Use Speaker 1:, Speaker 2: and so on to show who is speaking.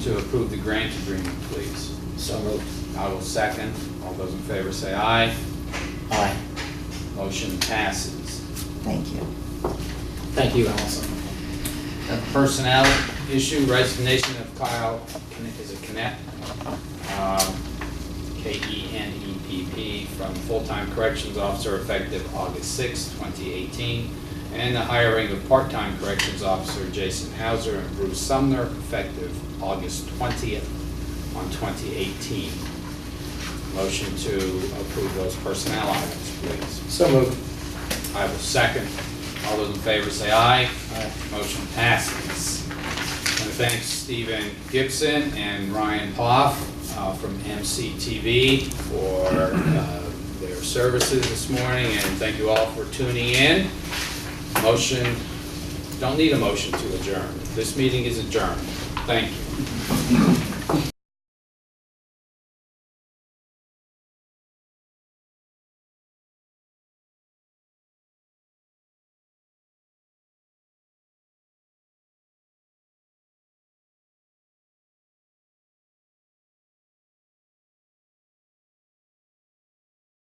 Speaker 1: To approve the grant agreement, please.
Speaker 2: So moved.
Speaker 1: I will second. All those in favor say aye.
Speaker 2: Aye.
Speaker 1: Motion passes.
Speaker 3: Thank you.
Speaker 2: Thank you, Allison.
Speaker 1: A Personnel issue, resignation of Kyle, Kne- is it Knepp? Um, E K-E-N-E-P-P, from full-time corrections officer effective August 6, 2018, and the hiring of part-time corrections officer Jason Hauser and Bruce Sumner effective August 20th on 2018. Motion to approve those personnel items, please.
Speaker 2: So moved.
Speaker 1: I will second. All those in favor say aye.
Speaker 2: Aye.
Speaker 1: Motion passes. And thanks Stephen Gibson and Ryan Poff uh, from MCTV for uh, their services this morning, and thank you all for tuning in. Motion, don't need a motion to adjourn. This meeting is adjourned. Thank you.